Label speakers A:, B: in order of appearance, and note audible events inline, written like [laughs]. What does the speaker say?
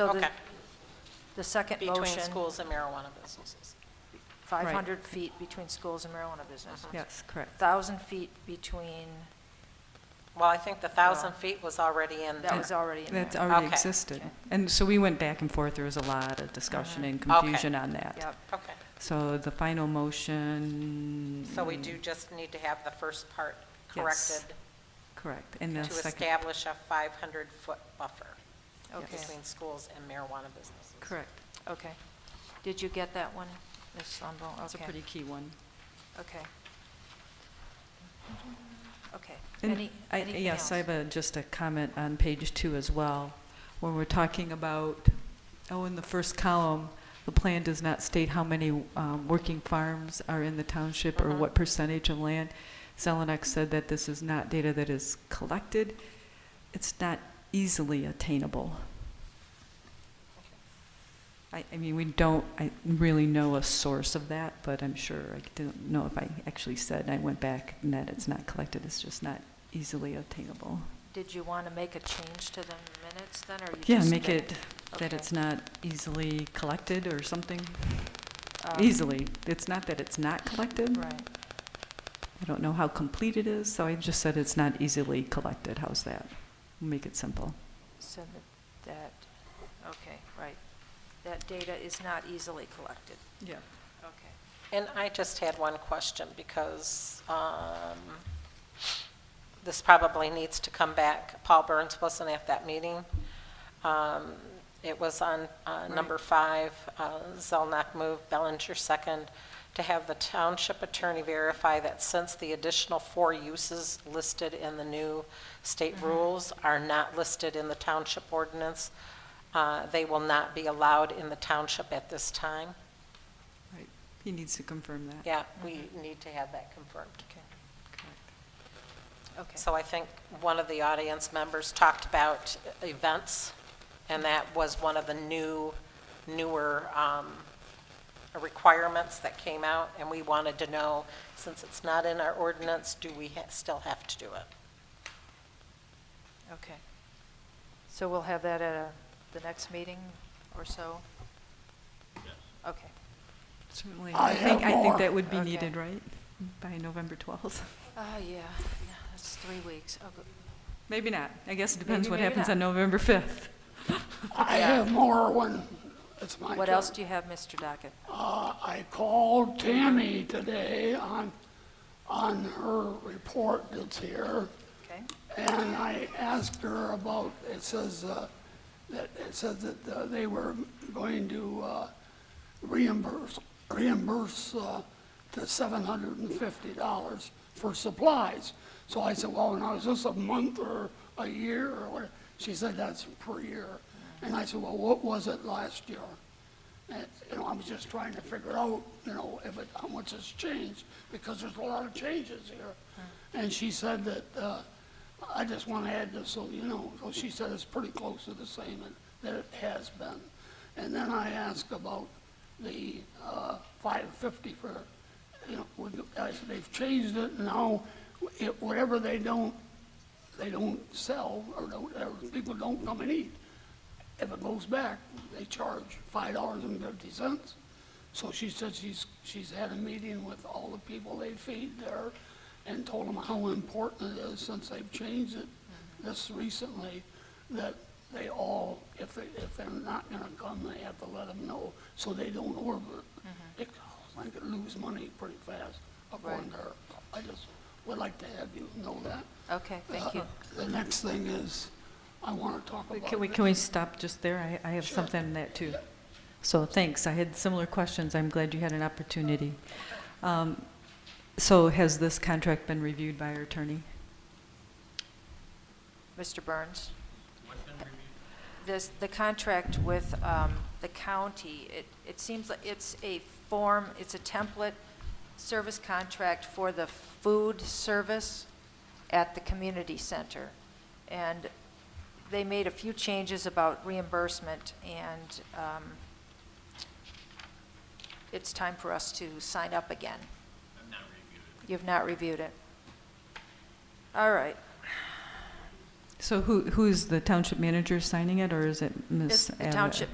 A: So the,
B: Okay.
A: the second motion.
B: between schools and marijuana businesses.
A: 500 feet between schools and marijuana businesses.
C: Yes, correct.
A: 1,000 feet between,
B: Well, I think the 1,000 feet was already in
A: that
B: there.
A: was already in there.
C: That's already
B: Okay.
C: existed. And so we went back and forth, there was a lot of discussion and
B: Okay.
C: confusion on that.
A: Uh-huh. Yep,
B: Okay,
C: So the final motion,
B: so we do just need to have the first part
C: Yes.
B: corrected
C: correct, and
B: to
C: the second.
B: establish a 500-foot buffer
A: okay,
B: between schools and marijuana businesses.
C: Correct.
A: okay. Did you get that one, Ms. Lumbo?
C: That's a
A: Okay,
C: pretty key one.
A: Okay. Okay.
C: And
A: Any,
C: I-
A: anything
C: Yes, I
A: else?
C: have a, just a comment on page two as well, when we're talking about, oh, in the first column, the plan does not state how many um, working farms are in the township or what percentage of land. Zelenak said that this is not data that is collected. It's not easily attainable. I, I mean, we don't, I really know a source of that, but I'm sure, I don't know if I actually said, I went back, and that it's not collected, it's just not easily attainable.
A: Did you want to make a change to the minutes then, or you just?
C: Yeah, make
A: did-
C: it that
A: Okay.
C: it's not easily collected or something,
A: um,
C: easily. It's not that it's not collected,
A: Right,
C: I don't know how complete it is, so I just said it's not easily collected, how's that? Make it simple.
A: so that- that, okay, right. That data is not easily collected.
C: Yeah.
A: Okay.
B: And I just had one question, because um, this probably needs to come back. Paul Burns wasn't at that meeting. Um, It was on uh, number five, uh, Zelnok moved, Bellinger second, to have the township attorney verify that since the additional four uses listed in the new state rules are not listed in the township ordinance, uh, they will not be allowed in the township at this time.
C: Right, he needs to confirm that.
B: Yeah, we need to have that confirmed.
A: Okay.
B: So I think one of the audience members talked about events, and that was one of the new, newer um, requirements that came out, and we wanted to know, since it's not in our ordinance, do we ha- still have to do it?
A: Okay. So we'll have that at a- the next meeting or so? Yes. Okay.
C: Certainly. I think, I think that would be
A: Okay.
C: needed, right? By November 12th?
A: Ah, yeah, yeah, that's three weeks. Oh, go-
C: [laughs] Maybe not. I guess it depends
A: Maybe,
C: what
A: maybe
C: happens
A: not.
C: on November 5th.
D: I have more when it's my turn.
A: What else do you have, Mr. Dockett?
D: Uh, I called Tammy today on, on her report that's here,
A: Okay,
D: and I asked her about, it says, uh, that, it says that uh, they were going to uh, reimburse, reimburse uh, the $750 for supplies. So I said, well, now is this a month or a year or what? She said, that's per year. And I said, well, what was it last year? And, you know, I was just trying to figure out, you know, if it, how much has changed, because there's a lot of changes here. And she said that, uh, I just want to add this, so you know, so she said it's pretty close to the same and- that it has been. And then I asked about the, uh, five fifty for, you know, would- I said, they've changed it now, it, whatever they don't, they don't sell, or don't, or people don't come and eat, if it goes back, they charge five dollars and fifty cents. So she said she's, she's had a meeting with all the people they feed there and told them how important it is since they've changed it this recently, that they all, if they, if they're not gonna come, they have to let them know, so they don't order
A: Mm-hmm.
D: it. It, I could lose money pretty fast according to her. I just would like to have you know that. Uh,
A: okay, thank you.
D: The next thing is, I wanna talk about.
C: Can we,
D: the-
C: can we stop just there? I, I have something on that too. So thanks, I had similar questions, I'm glad you had an opportunity. Um, So has this contract been reviewed by our attorney?
A: Mr. Burns? This, the contract with um, the county, it, it seems like it's a form, it's a template service contract for the food service at the community center. And they made a few changes about reimbursement, and um, it's time for us to sign up again. I've not reviewed it. You've not reviewed it. All right.
C: So who, who's the township manager signing it, or is it Ms.
A: It's the
C: Abbott?
A: township